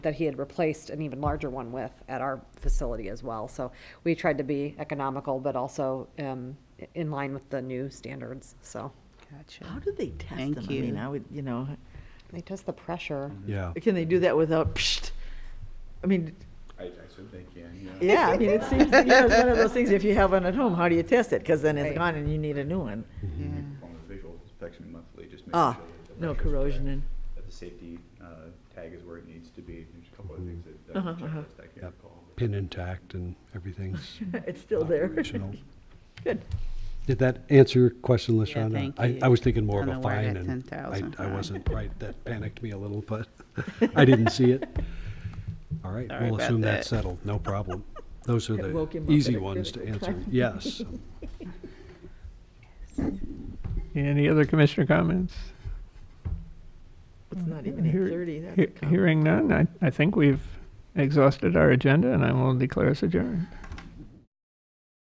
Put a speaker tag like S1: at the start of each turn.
S1: that he had replaced an even larger one with at our facility as well. So we tried to be economical, but also um, i- in line with the new standards. So
S2: Gotcha.
S3: How do they test
S2: Thank
S3: them?
S2: you.
S3: I mean, I would, you know,
S1: they test the pressure.
S4: Yeah.
S3: can they do that without? Psht? I mean,
S5: I, I should think, yeah, yeah.
S3: yeah. I mean, it seems you know, it's one of those things. If you have one at home, how do you test it? Because then it's
S1: Right.
S3: gone, and you need a new one.
S5: On the visual inspection monthly, just make
S3: Ah,
S5: sure. that the
S3: no
S5: pressure's
S3: corrosion
S5: correct,
S3: and
S5: That the safety, uh, tag is where it needs to be, there's a couple of things that,
S3: Uh-huh,
S5: that
S3: uh-huh.
S5: checklist I can't
S4: Yep.
S5: recall. but-
S4: Pin intact and everything's
S3: it's still there.
S4: operational.
S3: Good.
S4: Did that answer your question,
S2: Yeah,
S4: Lashana?
S2: thank
S4: I,
S2: you.
S4: I was thinking more of
S2: On
S4: a
S2: the word
S4: fine
S2: at
S4: and I,
S2: 10,000.
S4: I wasn't right. That panicked me a little, but I didn't see it. All right,
S2: Sorry
S4: we'll
S2: about
S4: assume that's
S2: that.
S4: settled. No problem. Those are
S3: It woke him
S4: the
S3: up
S4: easy
S3: at a
S4: ones to
S3: critical
S4: answer.
S3: time.
S4: Yes.
S6: Any other commissioner comments?
S3: It's not even
S6: Hear-
S3: eight thirty. That's a
S6: He-
S3: compliment.
S6: Hearing none, I, I think we've exhausted our agenda and I will declare us adjourned.